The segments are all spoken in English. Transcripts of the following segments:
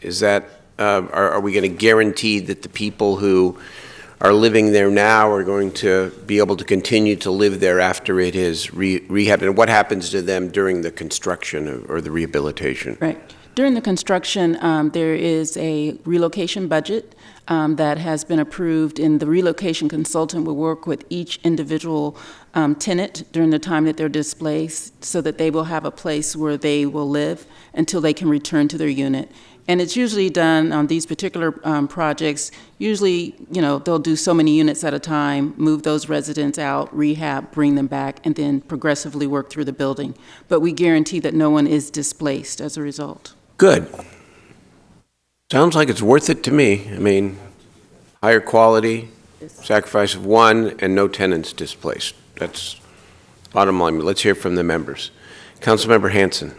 Is that, um, are are we going to guarantee that the people who are living there now are going to be able to continue to live there after it is re- rehabbed? And what happens to them during the construction or- or the rehabilitation? Right. During the construction, um, there is a relocation budget um, that has been approved, and the relocation consultant will work with each individual um, tenant during the time that they're displaced so that they will have a place where they will live until they can return to their unit. And it's usually done on these particular um, projects. Usually, you know, they'll do so many units at a time, move those residents out, rehab, bring them back, and then progressively work through the building. But we guarantee that no one is displaced as a result. Good. Sounds like it's worth it to me. I mean, higher quality, sacrifice of one, and no tenants displaced. That's bottom line. Let's hear from the members. Councilmember Hanson.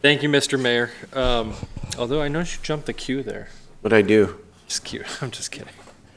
Thank you, Mr. Mayor. Um, although I noticed you jumped the queue there. what'd I do? Just cute. I'm just kidding.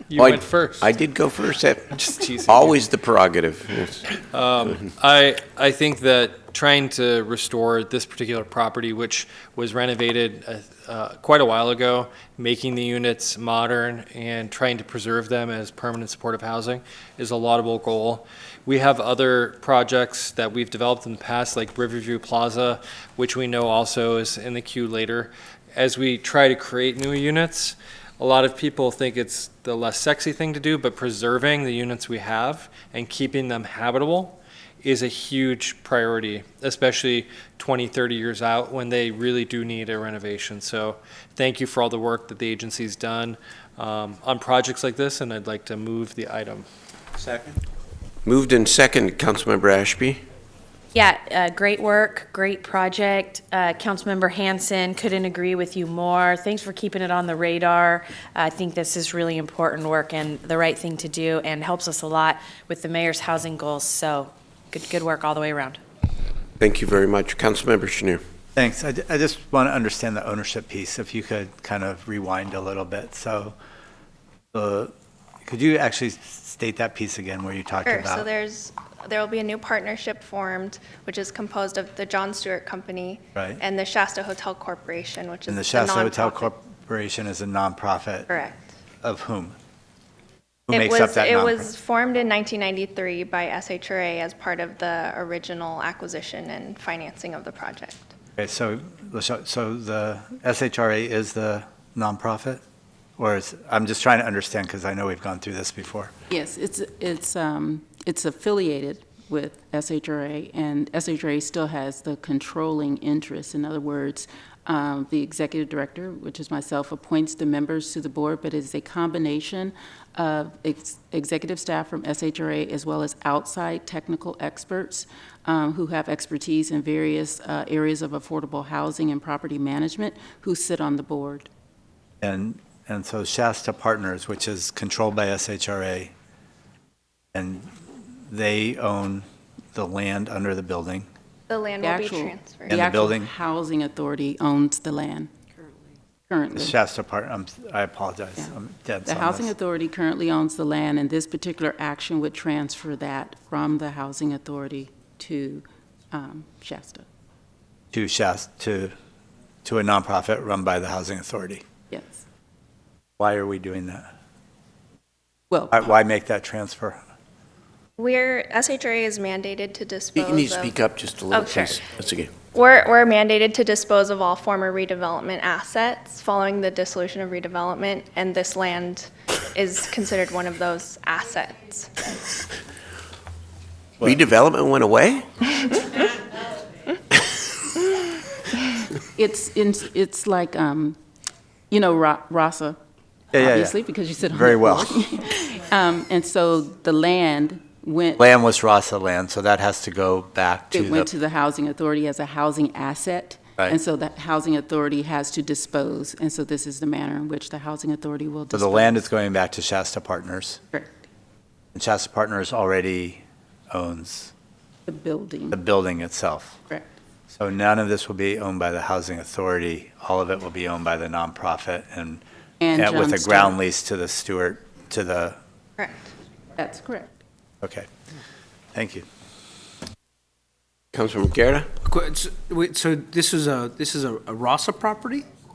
You Oh, I- went first. I did go first. That- just teasing you. Always the prerogative. Yes. Um, I I think that trying to restore this particular property, which was renovated uh, uh, quite a while ago, making the units modern and trying to preserve them as permanent supportive housing is a laudable goal. We have other projects that we've developed in the past, like Riverview Plaza, which we know also is in the queue later. As we try to create new units, a lot of people think it's the less sexy thing to do, but preserving the units we have and keeping them habitable is a huge priority, especially 20, 30 years out when they really do need a renovation. So thank you for all the work that the agency's done um, on projects like this, and I'd like to move the item. Moved in second, Councilmember Ashby. Yeah, uh, great work, great project. Uh, Councilmember Hanson, couldn't agree with you more. Thanks for keeping it on the radar. I think this is really important work and the right thing to do, and helps us a lot with the mayor's housing goals. So, good, good work all the way around. Thank you very much. Councilmember Chenier. Thanks. I, ju- I just want to understand the ownership piece, if you could kind of rewind a little bit. So, uh, could you actually state that piece again where you talked Sure, about? so there's, there will be a new partnership formed, which is composed of the John Stewart Company. Right. And the Shasta Hotel Corporation, which is and the the Shasta Hotel nonprofit. Corporation is a nonprofit Correct. of whom? Who It makes was- up that It nonprofit? was formed in 1993 by SHRA as part of the original acquisition and financing of the project. okay, so, the sh- so the SHRA is the nonprofit, or is, I'm just trying to understand because I know we've gone through this before. Yes, it's, it's, um, it's affiliated with SHRA, and SHRA still has the controlling interest. In other words, um, the executive director, which is myself, appoints the members to the board, but it's a combination of ex- executive staff from SHRA as well as outside technical experts um, who have expertise in various uh, areas of affordable housing and property management who sit on the board. And, and so Shasta Partners, which is controlled by SHRA, and they own the land under the building. The land The will be actual, transferred. And the the actual building? housing authority owns the land. Currently. Shasta Part, I'm, I apologize, Yeah. I'm dense The on housing this. authority currently owns the land, and this particular action would transfer that from the housing authority to um, Shasta. To Shasta, to, to a nonprofit run by the Housing Authority. Yes. Why are we doing that? Well, Why- Why make that transfer? We're, SHRA is mandated to You dispose you need to of- speak up just a little, Oh, sure. please. That's okay. We're, we're mandated to dispose of all former redevelopment assets following the dissolution of redevelopment, and this land is considered one of those assets. Redevelopment went away? it's, it's it's like, um, you know, Ra- RASA, Yeah, yeah, yeah. obviously, because you sit on the Very well. board. Um, And so the land went, Land was Rasa land, so that has to go back to it went to the, the housing authority as a housing asset. Right. And so the housing authority has to dispose, and so this is the manner in which the housing authority will so dispose. the land is going back to Shasta Partners. Correct. And Shasta Partners already owns The building, the building itself. correct. So none of this will be owned by the housing authority. All of it will be owned by the nonprofit and, And and with John a Stewart. ground lease to the Stewart, to the, Correct. That's correct. okay. Thank you. Councilmember Guerra? Qu- So wait, so this is a, this is a a Rasa property?